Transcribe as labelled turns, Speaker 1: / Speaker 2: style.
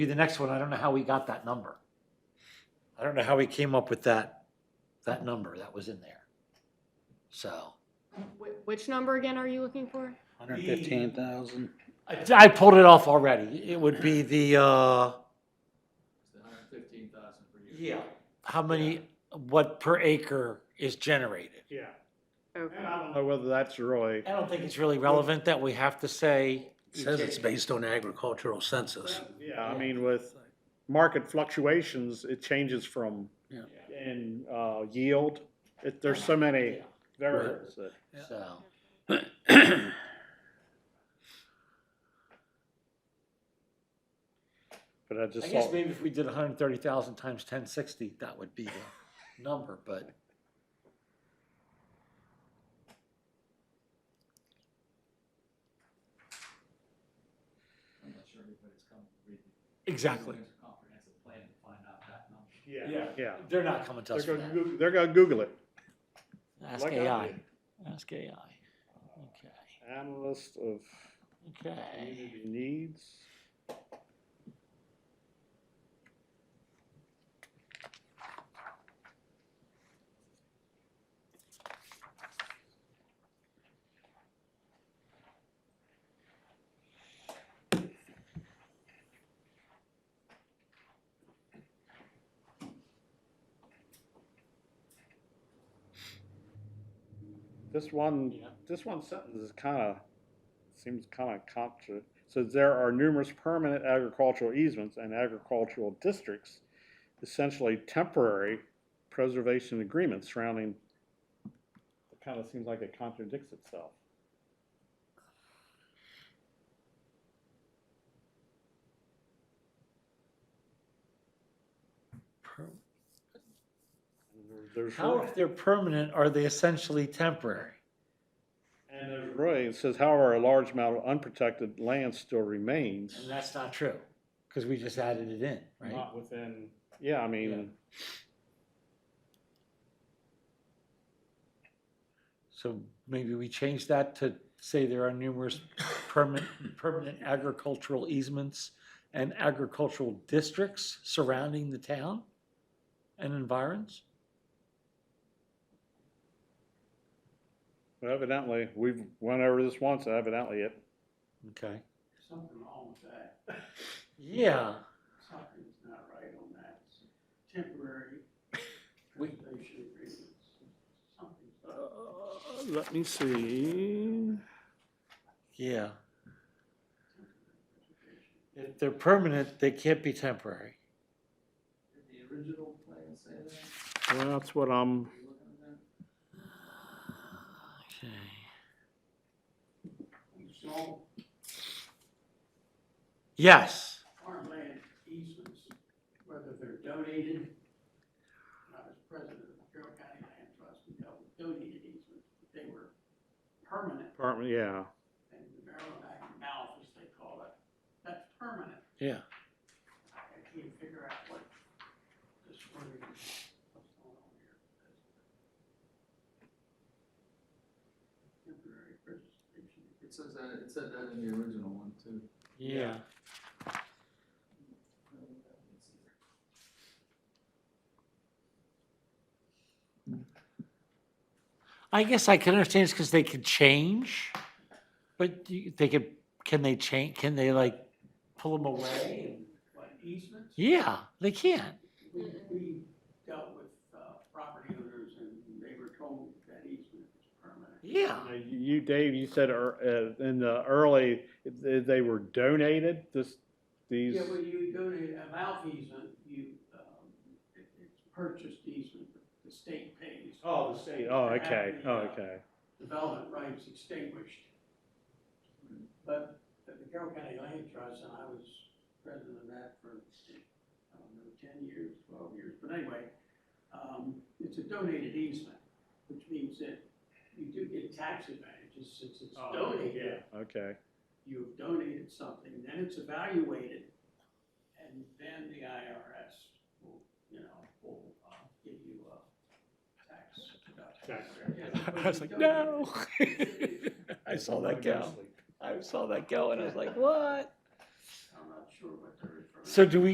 Speaker 1: be the next one. I don't know how we got that number. I don't know how we came up with that, that number that was in there. So,
Speaker 2: Wh- Which number again are you looking for?
Speaker 3: Hundred fifteen thousand.
Speaker 1: I, I pulled it off already. It would be the, uh,
Speaker 4: It's the hundred and fifteen thousand per year.
Speaker 1: yeah, how many, what per acre is generated?
Speaker 5: Yeah, and
Speaker 2: Okay.
Speaker 5: I don't know whether that's really,
Speaker 1: I don't think it's really relevant that we have to say.
Speaker 3: Says it's
Speaker 6: based on agricultural census.
Speaker 5: yeah, I mean, with market fluctuations, it changes from,
Speaker 3: Yeah.
Speaker 5: in, uh, yield. It, there's so many variables that.
Speaker 1: So.
Speaker 5: But I
Speaker 1: I
Speaker 5: just
Speaker 1: guess
Speaker 5: thought,
Speaker 1: maybe if we did hundred and thirty thousand times ten sixty, that would be the number, but.
Speaker 4: I'm not sure anybody's come to read. the-
Speaker 1: Exactly.
Speaker 4: There's a comprehensive plan to find out that number.
Speaker 5: yeah, yeah.
Speaker 1: They're not coming to
Speaker 5: They're
Speaker 1: us for
Speaker 5: gonna
Speaker 1: that.
Speaker 5: Google, they're gonna Google it.
Speaker 1: Ask
Speaker 5: like I
Speaker 1: AI,
Speaker 5: did.
Speaker 1: ask AI. Okay,
Speaker 5: Analyst of
Speaker 1: okay.
Speaker 5: community needs. This one,
Speaker 1: Yeah.
Speaker 5: this one sentence is kind of seems kind of contra. So there are numerous permanent agricultural easements and agricultural districts, essentially temporary preservation agreements surrounding. It kind of seems like it contradicts itself. There's
Speaker 1: How,
Speaker 5: really-
Speaker 1: if they're permanent, are they essentially temporary?
Speaker 5: And there's really, it says, however, a large amount of unprotected land still remains.
Speaker 1: And that's not true, because we just added it in, right?
Speaker 5: Not within. Yeah, I mean,
Speaker 1: So maybe we change that to say there are numerous permanent, permanent agricultural easements and agricultural districts surrounding the town and environs?
Speaker 5: evidently, we've went over this once, evidently it,
Speaker 1: Okay.
Speaker 7: something wrong with that.
Speaker 1: Yeah,
Speaker 7: Something's not right on that. Temporary
Speaker 1: We-
Speaker 7: preservation agreements. Something's
Speaker 5: uh,
Speaker 7: up.
Speaker 5: let me see.
Speaker 1: yeah. If they're permanent, they can't be temporary.
Speaker 4: Did the original plan say that?
Speaker 5: Well, that's what I'm,
Speaker 4: Are you looking at that?
Speaker 1: Okay.
Speaker 7: Small
Speaker 1: Yes.
Speaker 7: farmland easements, whether they're donated. When I was president of the Carroll County Land Trust, we dealt with donated easements, but they were permanent,
Speaker 5: pardon, yeah.
Speaker 7: and the Maryland Act of Mouth, as they call it, that's permanent.
Speaker 1: Yeah.
Speaker 7: I can't figure out what this word is, what's going on here. Temporary preservation.
Speaker 4: It says that, it said that in the original one too.
Speaker 1: Yeah. I guess I can understand it's because they could change, but do you- they could, can they change, can they like pull them away?
Speaker 7: What easements?
Speaker 1: Yeah, they can.
Speaker 7: We, we dealt with, uh, property owners and they were told that easement is permanent.
Speaker 1: Yeah.
Speaker 5: Now, You, Dave, you said ear- uh, in the early, they they were donated, this, these,
Speaker 7: Yeah, when you go to a mouth easement, you, um, it, it's purchased easement, the state pays.
Speaker 5: oh, the state, oh, okay,
Speaker 7: After the,
Speaker 5: oh,
Speaker 7: uh,
Speaker 5: okay.
Speaker 7: development rights extinguished. But at the Carroll County Land Trust, and I was president of that for, I don't know, ten years, twelve years, but anyway, um, it's a donated easement, which means that you do get tax advantages since it's donated.
Speaker 5: Okay,
Speaker 7: You've donated something, then it's evaluated, and then the IRS will, you know, will, uh, give you a tax deduction. Yeah, but
Speaker 1: I was
Speaker 7: you
Speaker 1: like,
Speaker 7: donated.
Speaker 1: no. I saw that go. I saw that go and I was like, what?
Speaker 7: I'm not sure what they're referring
Speaker 1: So do we